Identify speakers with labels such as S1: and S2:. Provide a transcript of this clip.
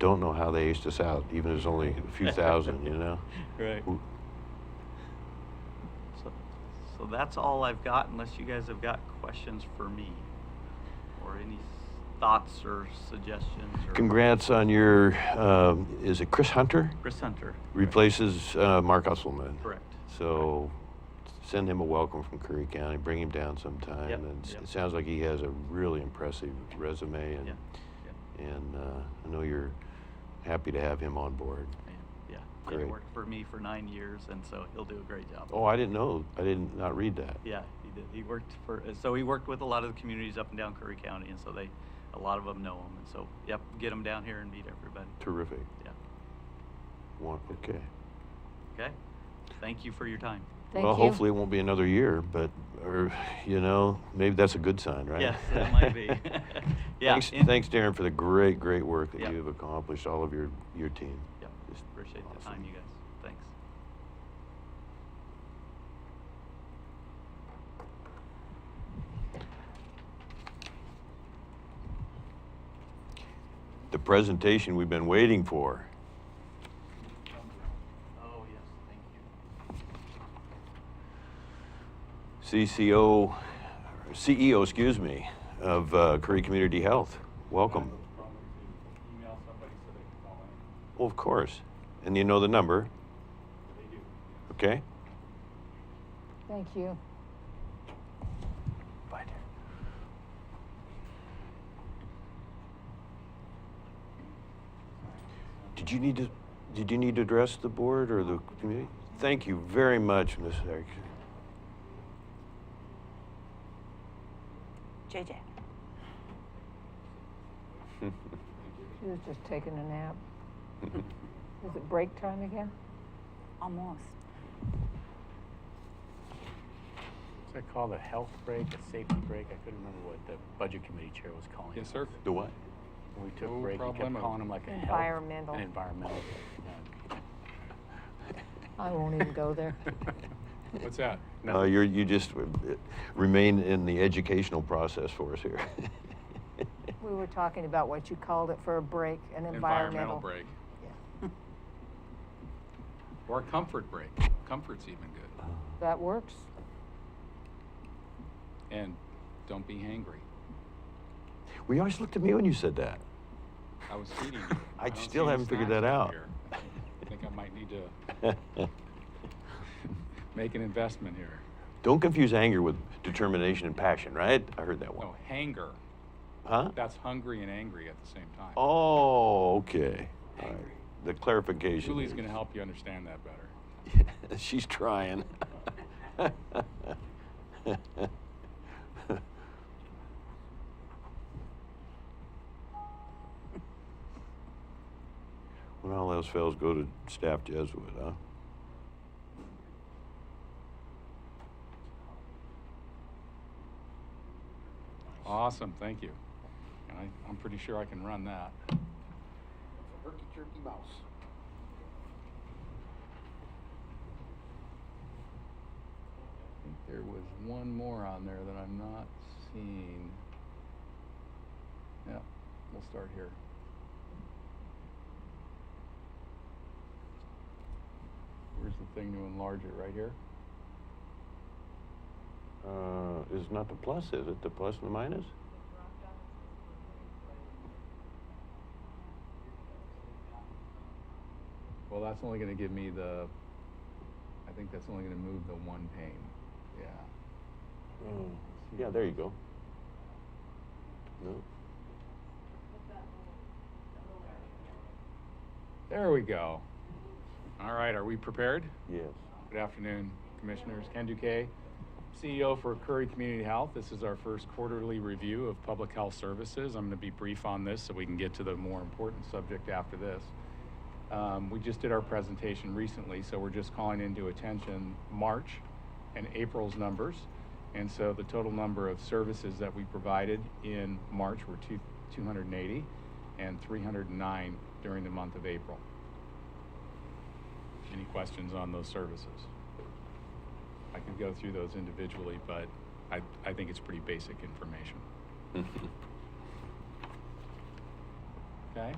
S1: don't know how they aced us out, even if it's only a few thousand, you know?
S2: Right.
S1: Who-
S2: So, so that's all I've got unless you guys have got questions for me or any s- thoughts or suggestions or.
S1: Congrats on your, um, is it Chris Hunter?
S2: Chris Hunter.
S1: Replaces uh, Mark Usselman.
S2: Correct.
S1: So send him a welcome from Curry County, bring him down sometime.
S2: Yep,
S1: And s-
S2: yep.
S1: it sounds like he has a really impressive resume and,
S2: Yeah,
S1: and uh, I know you're happy to have him on board.
S2: yeah, yeah. He
S1: Great.
S2: worked for me for nine years and so he'll do a great job.
S1: Oh, I didn't know, I didn't, not read that.
S2: Yeah, he did. He worked for, uh, so he worked with a lot of the communities up and down Curry County and so they, a lot of them know him. And so, yep, get him down here and meet everybody.
S1: Terrific.
S2: Yeah.
S1: One, okay.
S2: Okay? Thank you for your time.
S3: Thank
S1: well,
S3: you.
S1: hopefully it won't be another year, but, or, you know, maybe that's a good sign, right?
S2: Yes, that might be. Yeah,
S1: Thanks,
S2: and-
S1: thanks, Darren, for the great, great work that
S2: Yeah.
S1: you've accomplished, all of your, your team.
S2: Yep,
S1: Just
S2: appreciate the
S1: awesome.
S2: time, you guys. Thanks.
S1: The presentation we've been waiting for.
S2: Oh, yes, thank you.
S1: CCO, CEO, E excuse me, of uh, Curry Community Health. Welcome.
S4: Email somebody so they can call in.
S1: Well, of course. And you know the number,
S4: They do.
S1: okay?
S3: Thank you.
S1: Bye, Darren. Did you need to, did you need to address the board or the community? Thank you very much, Ms. Erickson.
S5: JJ.
S3: She was just taking a nap. Is it break time again?
S5: Almost.
S6: What's that called? A health break, a safety break? I couldn't remember what the budget committee chair was calling it.
S4: Yes, sir.
S1: The what?
S6: When we took
S4: No
S6: break, he kept
S4: problemo.
S6: calling them like a health.
S3: Environmental.
S6: An environmental.
S3: I won't even go there.
S4: What's that?
S1: No, you're, Uh, you just uh, remain in the educational process for us here.
S3: We were talking about what you called it for a break, an environmental.
S4: break.
S3: Yeah.
S4: Or a comfort break. Comfort's even good.
S3: That works.
S4: And don't be hangry.
S1: Well, you always looked at me when you said that.
S4: I was feeding you.
S1: I
S4: don't
S1: still
S4: see any
S1: haven't figured
S4: snacks
S1: that
S4: over
S1: out.
S4: here. I think I might need to make an investment here.
S1: Don't confuse anger with determination and passion, right? I heard that one.
S4: No, hanger.
S1: Huh?
S4: That's hungry and angry at the same time.
S1: Oh, okay. All right. The clarification.
S4: Julie's
S1: is-
S4: going to help you understand that better.
S1: She's trying. When all else fails, go to staff Jesuit, huh?
S4: Awesome, thank you. And I, I'm pretty sure I can run that.
S7: Herky jerky mouse.
S4: I think there was one more on there that I'm not seeing. Yeah, we'll start here. Where's the thing to enlarge it, right here?
S1: Uh, is not the plus, is it? The plus and the minus?
S4: Well, that's only gonna give me the, I think that's only gonna move the one pane, yeah.
S1: Oh, Yeah, there you go. No.
S4: There we go. All right, are we prepared?
S1: Yes.
S4: Good afternoon, Commissioners. Ken Duque, CEO for Curry Community Health. This is our first quarterly review of public health services. I'm going to be brief on this so we can get to the more important subject after this. Um, We just did our presentation recently, so we're just calling into attention March and April's numbers. And so the total number of services that we provided in March were two- 280 and 309 during the month of April. Any questions on those services? I can go through those individually, but I, I think it's pretty basic information. Okay?